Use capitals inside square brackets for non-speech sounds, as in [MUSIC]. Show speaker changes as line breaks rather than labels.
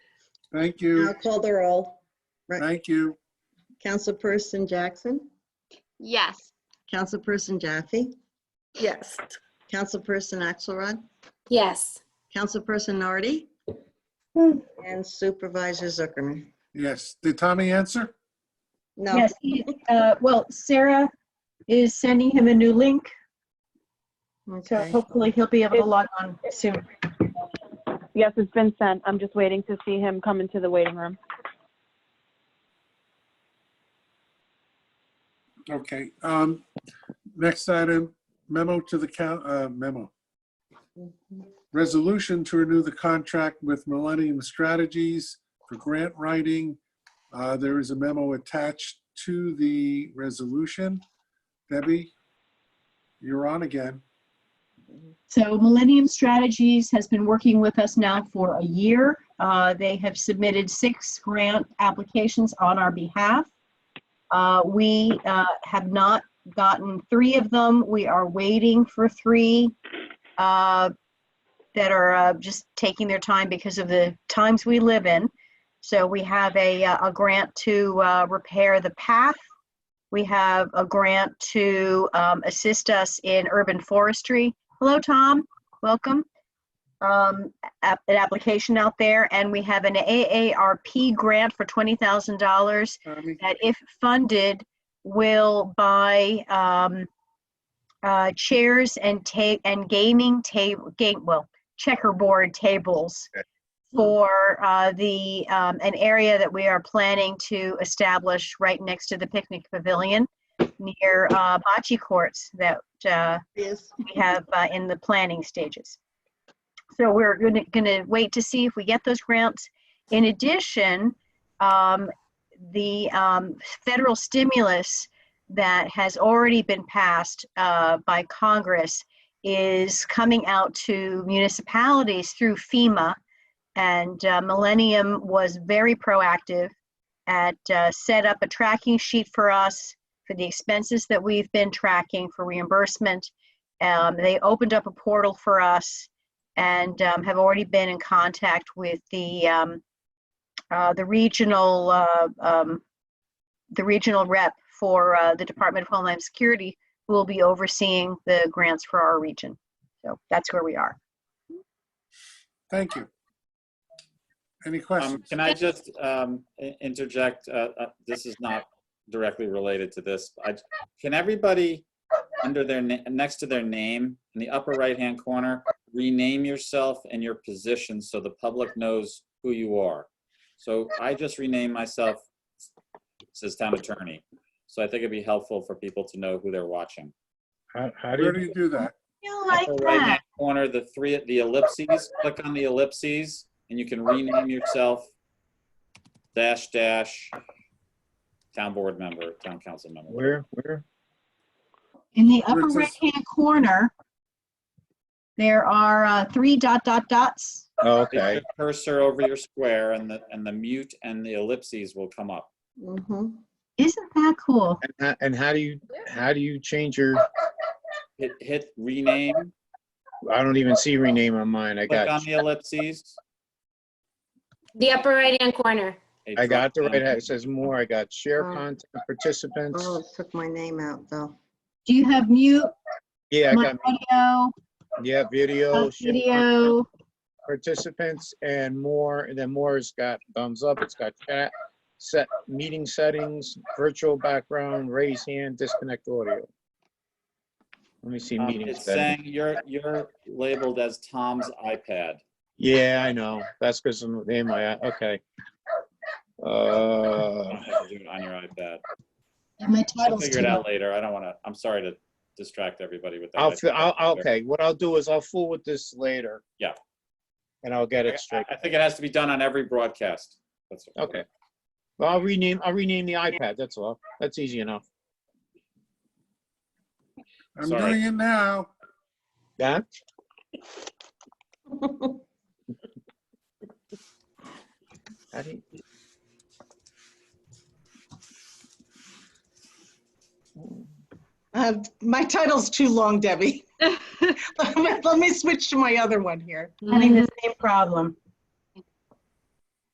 Thank
I'll
you,
call the roll.
thank you.
Councilperson Jackson,
Yes.
Councilperson Jaffe,
Yes.
Councilperson Axelrod,
Yes.
Councilperson Nardi,
Hmm.
and Supervisor Zuckerman.
Yes, did Tommy answer?
No,
Yes, he- uh, well, Sarah is sending him a new link, so
okay.
hopefully he'll be able to log on soon.
Yes, it's been sent. I'm just waiting to see him come into the waiting room.
Okay, um, next item, memo to the coun, uh, memo. Resolution to renew the contract with Millennium Strategies for grant writing. Uh, there is a memo attached to the resolution. Debbie, you're on again.
So Millennium Strategies has been working with us now for a year. Uh, They have submitted six grant applications on our behalf. Uh, We uh, have not gotten three of them. We are waiting for three uh, that are uh, just taking their time because of the times we live in. So we have a, uh, a grant to uh, repair the path. We have a grant to um, assist us in urban forestry. Hello, Tom. Welcome. Um, a- an application out there, and we have an AARP grant for twenty thousand dollars
Tommy?
that, if funded, will buy um, uh, chairs and ta- and gaming table game well checkerboard tables for uh, the um, an area that we are planning to establish right next to the picnic pavilion near uh, bocce courts that uh,
Yes.
we have uh, in the planning stages. So we're going to wait to see if we get those grants. In addition, um, the um, federal stimulus that has already been passed uh, by Congress is coming out to municipalities through FEMA. And uh, Millennium was very proactive at uh, set up a tracking sheet for us for the expenses that we've been tracking for reimbursement. Um, they opened up a portal for us and um, have already been in contact with the um, uh, the regional uh, um, the regional rep for uh, the Department of Homeland Security who will be overseeing the grants for our region. So that's where we are.
Thank you. Any
Um,
questions?
Can I just um, i- interject? Uh, uh, This is not directly related to this. I- Can everybody, under their, na- next to their name, in the upper right-hand corner, rename yourself and your position so the public knows who you are? So I just renamed myself, it says town attorney. So I think it'd be helpful for people to know who they're watching.
How, how do
Where do
you,
you do that?
You
Upper right-hand Corner, the three, the ellipses, click on the ellipses, and you can rename yourself dash dash town board member, town council member.
where, where?
In the
Where
upper
it says-
right-hand corner, there are uh, three dot dot dots.
Oh,
Place
Okay,
your Cursor over your square and the, and the mute and the ellipses will come up.
Mhm.
Isn't that cool?
and, ho- and how do you, how do you change your,
Hit, hit rename,
I don't even see rename on mine, I
click on
got,
the ellipses.
The upper right-hand corner.
a
I got the
drop-down.
right, it says more, I got share
Oh.
content, participants,
Oh, it took my name out, though.
Do you have mute,
yeah, I
my
got, Oh,
audio,
yeah, video,
uh,
share content,
video?
participants, and more, and then more has got thumbs up, it's got chat, set, meeting settings, virtual background, raise hand, disconnect audio. Let me see
Um,
meeting
It's
settings.
saying you're, you're labeled as Tom's iPad.
Yeah, I know, that's because I'm, in my, okay. Uh.
You don't have to do it On your iPad.
And my
I'll
title's
figure it
too.
out later. I don't want to, I'm sorry to distract everybody with that.
I'll, fi- I'll, I'll- okay, what I'll do is I'll fool with this later.
Yeah.
And I'll get it straight.
I think it has to be done on every broadcast. That's-
Okay. Well, I'll rename, I'll rename the iPad, that's all. That's easy enough.
I'm
Sorry.
doing it now.
That, how do you-
Uh, My title's too [LAUGHS]
[LAUGHS]
long, Debbie. Let me switch to my other one here.
Having the same problem.